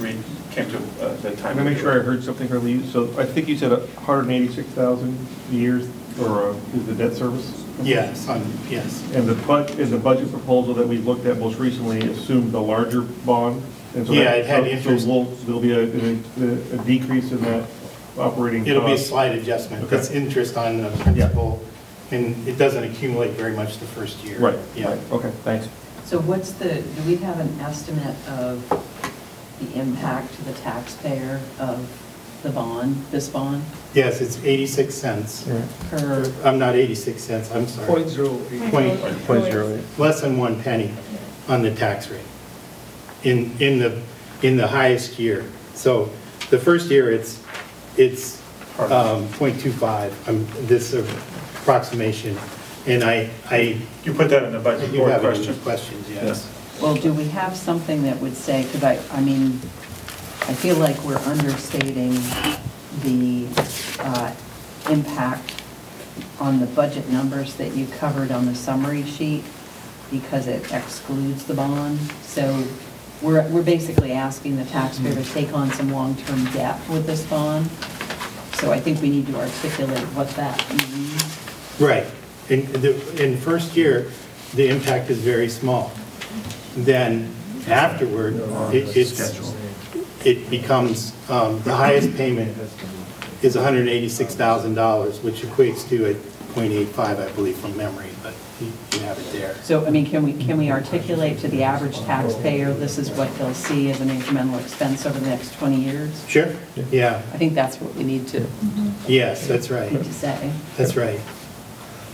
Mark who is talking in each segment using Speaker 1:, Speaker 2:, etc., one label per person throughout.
Speaker 1: we came to uh, that time.
Speaker 2: I'm gonna make sure I heard something earlier. So I think you said hundred and eighty-six thousand years, or uh, is the debt service?
Speaker 3: Yes, on, yes,
Speaker 2: And the bud, and the budget proposal that we looked at most recently assumed the larger bond? and so that-
Speaker 3: Yeah, it had
Speaker 2: so-
Speaker 3: interest.
Speaker 2: So we'll- there'll be a, a- a decrease in that operating cost?
Speaker 3: it'll be a slight adjustment,
Speaker 2: Okay.
Speaker 3: it's interest on the principal, and it doesn't accumulate very much the first year.
Speaker 2: Right,
Speaker 3: Yeah.
Speaker 2: right, okay, thanks.
Speaker 4: So what's the, do we have an estimate of the impact to the taxpayer of the bond, this bond,
Speaker 3: Yes, it's 86 cents,
Speaker 4: per,
Speaker 3: I'm not 86 cents, I'm sorry,
Speaker 5: Point zero eight.
Speaker 3: Point-
Speaker 2: Point zero eight.
Speaker 3: less than one penny on the tax rate in, in the, in the highest year. So the first year, it's, it's um, .25, I'm- um, this approximation, and I, I
Speaker 1: You put that in the
Speaker 3: I
Speaker 1: budget
Speaker 3: do
Speaker 1: board
Speaker 3: have any
Speaker 1: question.
Speaker 3: questions, yes.
Speaker 4: well, do we have something that would say, because I, I mean, I feel like we're understating the uh, impact on the budget numbers that you covered on the summary sheet, because it excludes the bond. So we're, we're basically asking the taxpayer to take on some long-term debt with this bond. So I think we need to articulate what that means.
Speaker 3: Right. In, the- in first year, the impact is very small. Then afterward, it- it's, it becomes, um, the highest payment is $186,000, which equates to a .85, I believe, from memory, but you you have it there.
Speaker 4: So, I mean, can we, can we articulate to the average taxpayer, this is what they'll see as an incremental expense over the next 20 years?
Speaker 3: Sure? Yeah,
Speaker 4: I think that's what we need to,
Speaker 3: yes, that's right,
Speaker 4: need to say.
Speaker 3: that's right.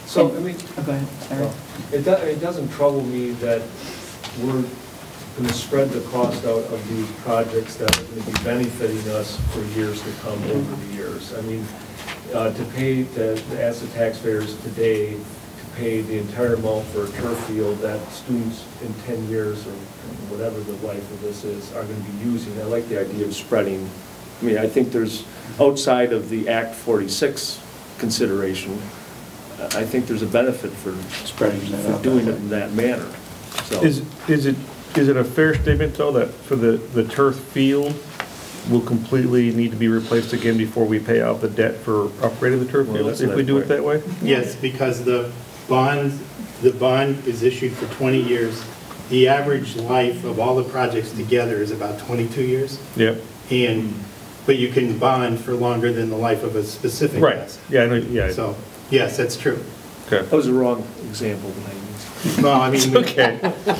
Speaker 5: So, I mean,
Speaker 4: Oh, go ahead, sorry.
Speaker 5: it do- it doesn't trouble me that we're going to spread the cost out of these projects that are going to be benefiting us for years to come over the years. I mean, uh, to pay, to to ask the taxpayers today to pay the entire amount for a turf field that students in 10 years or whatever the life of this is are going to be using, I like the idea of spreading. I mean, I think there's, outside of the Act 46 consideration, I think there's a benefit for
Speaker 1: Spreading that
Speaker 5: for
Speaker 1: out.
Speaker 5: doing it in that manner, so.
Speaker 2: Is, is it, is it a fair statement, though, that for the, the turf field will completely need to be replaced again before we pay out the debt for upgrading the turf
Speaker 5: Well,
Speaker 2: field,
Speaker 5: that's
Speaker 2: if we
Speaker 5: another
Speaker 2: do it
Speaker 5: point.
Speaker 2: that way?
Speaker 3: Yes, because the bond, the bond is issued for 20 years. The average life of all the projects together is about 22 years.
Speaker 2: Yeah,
Speaker 3: And, but you can bond for longer than the life of a specific
Speaker 2: right,
Speaker 3: asset.
Speaker 2: yeah, I know, yeah,
Speaker 3: So, yes, that's true.
Speaker 2: okay.
Speaker 5: That was the wrong example that I used.
Speaker 3: Well, I mean,
Speaker 2: Okay,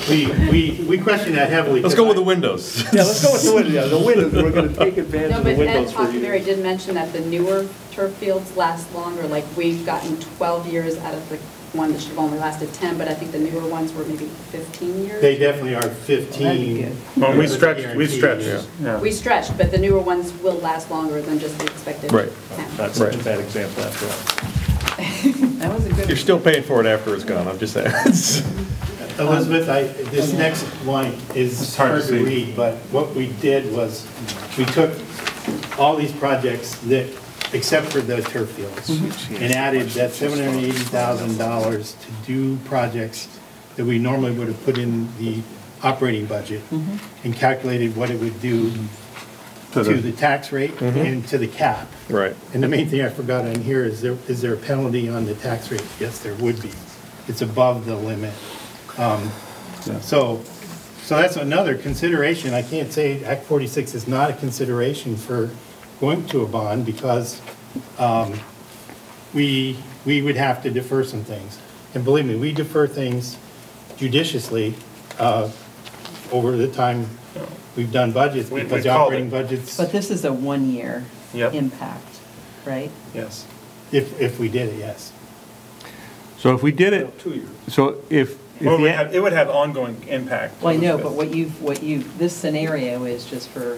Speaker 3: we, we, we question that heavily.
Speaker 2: let's go with the windows.
Speaker 5: Yeah, let's go with the windows, Yeah, the windows, we're going to take advantage
Speaker 6: No,
Speaker 5: of the
Speaker 6: but Ed
Speaker 5: windows for
Speaker 6: Hockenberry
Speaker 5: you.
Speaker 6: did mention that the newer turf fields last longer, like we've gotten 12 years out of the one that should have only lasted 10, but I think the newer ones were maybe 15
Speaker 3: They
Speaker 6: years.
Speaker 3: definitely are
Speaker 4: That'd be
Speaker 3: 15.
Speaker 4: good.
Speaker 2: Well, we
Speaker 3: stretch.
Speaker 2: stretched- we stretched, yeah.
Speaker 1: Yeah.
Speaker 6: We stretched, but the newer ones will last longer than just the expected
Speaker 2: Right.
Speaker 6: 10.
Speaker 5: Not such a
Speaker 2: Right.
Speaker 5: bad example after all.
Speaker 4: That was a good.
Speaker 2: You're still paying for it after it's gone, I'm just saying.
Speaker 3: Elizabeth, I, this next line
Speaker 1: It's
Speaker 3: is
Speaker 1: hard to
Speaker 3: hard to
Speaker 1: see.
Speaker 3: read, but what we did was, we took all these projects that, except for the turf fields, and added that $780,000 to do projects that we normally would have put in the operating budget, and calculated what it would do
Speaker 2: To
Speaker 3: to
Speaker 2: the-
Speaker 3: the tax rate
Speaker 1: Mm-hmm.
Speaker 3: and to the cap.
Speaker 2: Right.
Speaker 3: And the main thing I forgot on here is there, is there a penalty on the tax rate? Yes, there would be. It's above the limit. Um, So, so that's another consideration. I can't say Act 46 is not a consideration for going to a bond because um, we, we would have to defer some things. And believe me, we defer things judiciously uh, over the time we've done budgets
Speaker 1: We- we
Speaker 3: because the
Speaker 1: called
Speaker 3: operating
Speaker 1: it.
Speaker 3: budgets,
Speaker 4: But this is a one-year
Speaker 1: Yep.
Speaker 4: impact, right?
Speaker 1: Yes.
Speaker 3: if, if we did it, yes.
Speaker 2: So if we did it,
Speaker 5: Two years.
Speaker 2: so if,
Speaker 1: Well, it would have- it would have ongoing impact.
Speaker 4: Well, I know, but what you've, what you, this scenario is just for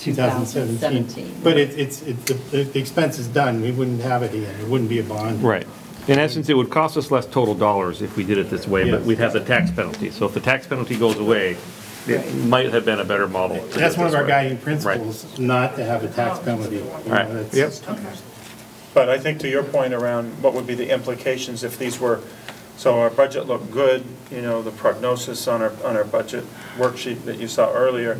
Speaker 4: 2017.
Speaker 3: But it- it's, it- the the expense is done, we wouldn't have it again, it wouldn't be a bond.
Speaker 7: Right. In essence, it would cost us less total dollars if we did it this way, but
Speaker 3: Yes.
Speaker 7: we'd have the tax penalty. So if the tax penalty goes away,
Speaker 4: Right.
Speaker 7: it might have been a better model. to do
Speaker 3: That's one of
Speaker 7: this
Speaker 3: our
Speaker 7: way.
Speaker 3: guiding
Speaker 7: Right.
Speaker 3: principles, not to have a tax penalty. You know,
Speaker 7: Right.
Speaker 3: that's-
Speaker 7: Yep.
Speaker 1: But I think to your point around what would be the implications if these were, so our
Speaker 2: Mm-hmm.
Speaker 1: budget looked good, you know, the prognosis on our, on our budget worksheet that you saw earlier,